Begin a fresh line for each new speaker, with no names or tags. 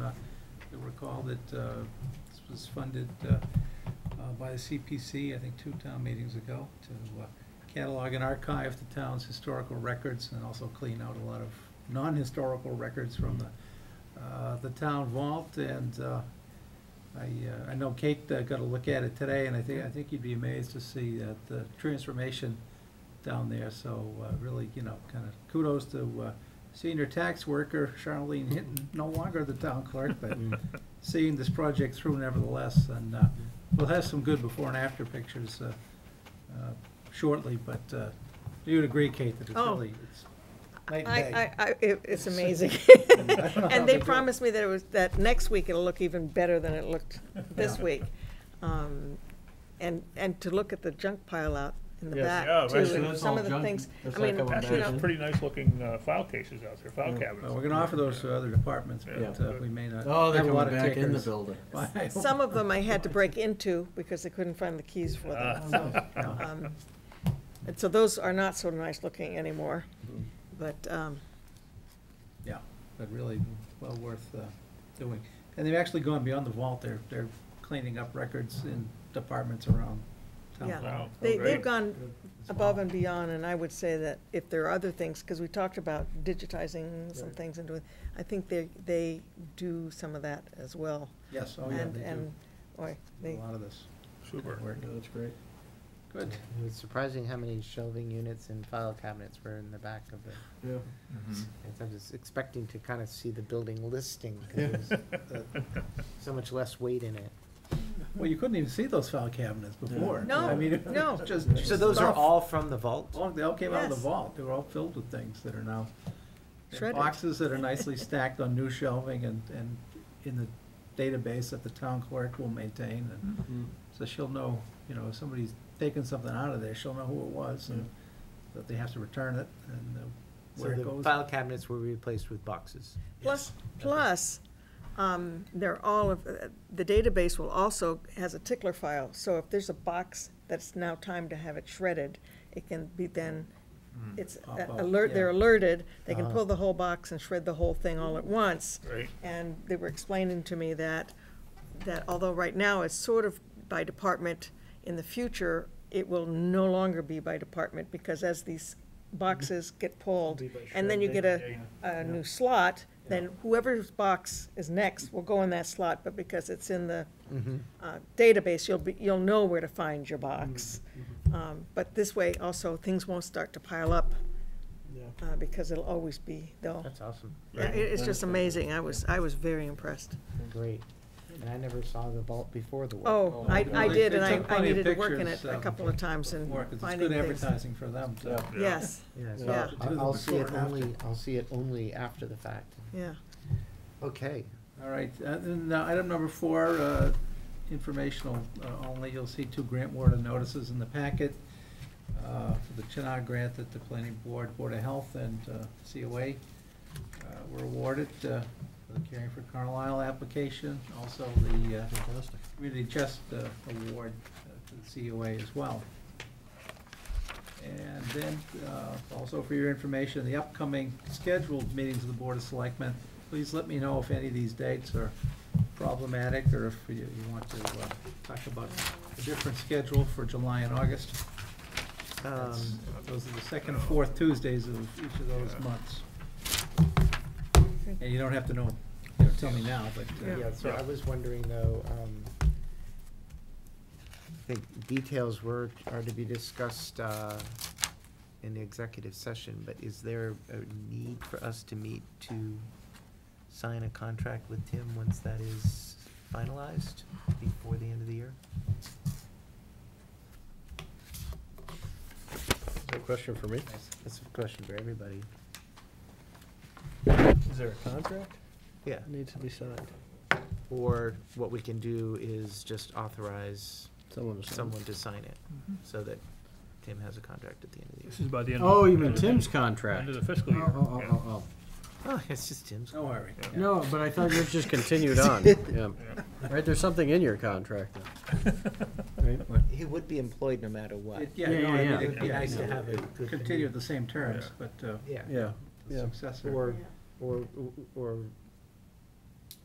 Uh, recall that uh, this was funded uh, uh, by the CPC, I think two town meetings ago, to uh, catalog and archive the town's historical records and also clean out a lot of non-historical records from the, uh, the town vault. And uh, I, uh, I know Kate uh, got a look at it today, and I think, I think you'd be amazed to see that the transformation down there. So uh, really, you know, kind of kudos to uh, senior tax worker Charlene Hinton, no longer the town clerk, but seeing this project through nevertheless. And uh, we'll have some good before and after pictures uh, uh, shortly, but uh, you'd agree, Kate, that it's
Oh.
really, it's night
I,
and day.
I, I, it- it's amazing.
I don't know how
And they
do it.
promised me that it was, that next week it'll look even better than it looked this
Yeah.
week. Um, And, and to look at the junk pile out in the
Yes.
back
Yeah,
too,
right, so
and
that's
some
all
of the
junk.
things,
That's
I mean,
like a
you
Actually,
know,
it's
pretty nice looking uh, file cases out there, file cabinets.
Well, We're gonna offer those to other departments,
Yeah.
but uh, we may not.
Oh, they're
have a lot
coming
of
back in the
takers.
building.
Why-
some of them I had to break into because I couldn't find the keys for
Ah.
them. so,
Yeah.
um, And so those are not so nice looking anymore,
Mm-hmm.
but, um,
Yeah, but really well worth uh, doing. And they've actually gone beyond the vault. They're, they're cleaning up records in departments around town.
Yeah.
Wow.
They,
Oh, Great.
they've gone above and beyond, and I would say that if there are other things, because we talked about digitizing some
Right.
things and doing, I think they, they do some of that as well.
Yes, oh yeah,
And-
they do.
And, boy,
A
they,
lot of this
Super.
work.
That's great.
Good.
It's surprising how many shelving units and file cabinets were in the back of the,
Yeah.
I was expecting to kind of see the building listing, because there's
Mm-hmm.
so much less weight in it.
Well, you couldn't even see those file cabinets before.
No,
I mean,
no.
it's Just.
So those are
stuff.
all from the vault?
All- They all came out of the
Yes.
vault. They were all filled with things that are now. in
Shredded.
Boxes that are nicely stacked on new shelving and, and in the database that the town clerk will maintain. And
Mm-hmm.
Mm-hmm.
So she'll know, you know, if somebody's taken something out of there, she'll know who it was and that they have to return it and uh,
So
where it
the
goes.
file cabinets were replaced with boxes.
plus, plus, um, they're all of, uh, the database will also, has a tickler file, so if there's a box that's now time to have it shredded, it can be then, it's
Pop
a-
up,
alert, they're
yeah.
alerted, they can
Uh-huh.
pull the whole box and shred the whole thing all at once.
Right.
And they were explaining to me that, that although right now it's sort of by department, in the future, it will no longer be by department, because as these boxes get pulled, and then you get a, a new slot, then whoever's box is next will go in that slot, but because it's in the
Mm-hmm.
uh, database, you'll be, you'll know where to find your
Mm-hmm.
box.
Mm.
Um, But this way also, things won't start to pile up, uh, because it'll always be,
Oh.
they'll,
That's awesome.
yeah, it- it's just amazing. I was, I was very impressed.
Great. And I never saw the vault before the war.
Oh, I,
They-
I did,
they
and
took
I, I
plenty of
needed to work in it
pictures,
a
um,
couple of times and
More, 'cause it's
finding
good
things.
advertising for them, so.
Yeah.
Yes,
Yeah, so
Yeah.
I'll- I'll see
Before
it
and after.
only, I'll see it only after the fact.
yeah.
Okay.
All right, uh, then, uh, item number four, uh, informational uh, only, you'll see two grant warden notices in the packet uh, for the Chenal grant that the planning board, Board of Health, and uh, COA uh, were awarded uh, for the Caring for Carlisle application, also the uh, Community Chest uh, Award uh, to the COA as well. And then, uh, also for your information, the upcoming scheduled meetings of the Board of Selectmen, please let me know if any of these dates are problematic, or if you, you want to uh, talk about a different schedule for July and August. That's-
Um,
Those are the second and fourth Tuesdays of each of those months. And you don't have to know, you know, tell me now, but. uh,
Yeah.
Yeah, so I was wondering though, um, I think details were, are to be discussed, uh, in the executive session, but is there a need for us to meet to sign a contract with Tim once that is finalized before the end of the year?
No question for me.
That's a question for everybody.
Is there a contract
Yeah,
that needs to be signed?
or what we can do is just authorize
Someone to sign.
someone to sign it, so that Tim has a contract at the end of the year.
This is by the end. of-
Oh, you mean
end of-
Tim's contract?
End of
Oh,
the fiscal year.
oh,
yeah.
oh, oh,
Oh, it's just Tim's.
No worry.
oh. No, but I thought yours just continued on. Yeah. Right, there's something in your contract now. Right?
He would be employed no matter what.
It- Yeah,
Yeah,
no, I
yeah,
mean,
yeah.
it'd be nice to
Yeah.
have it continue the same terms, but uh,
Yeah,
Yeah.
the successor.
or, or, or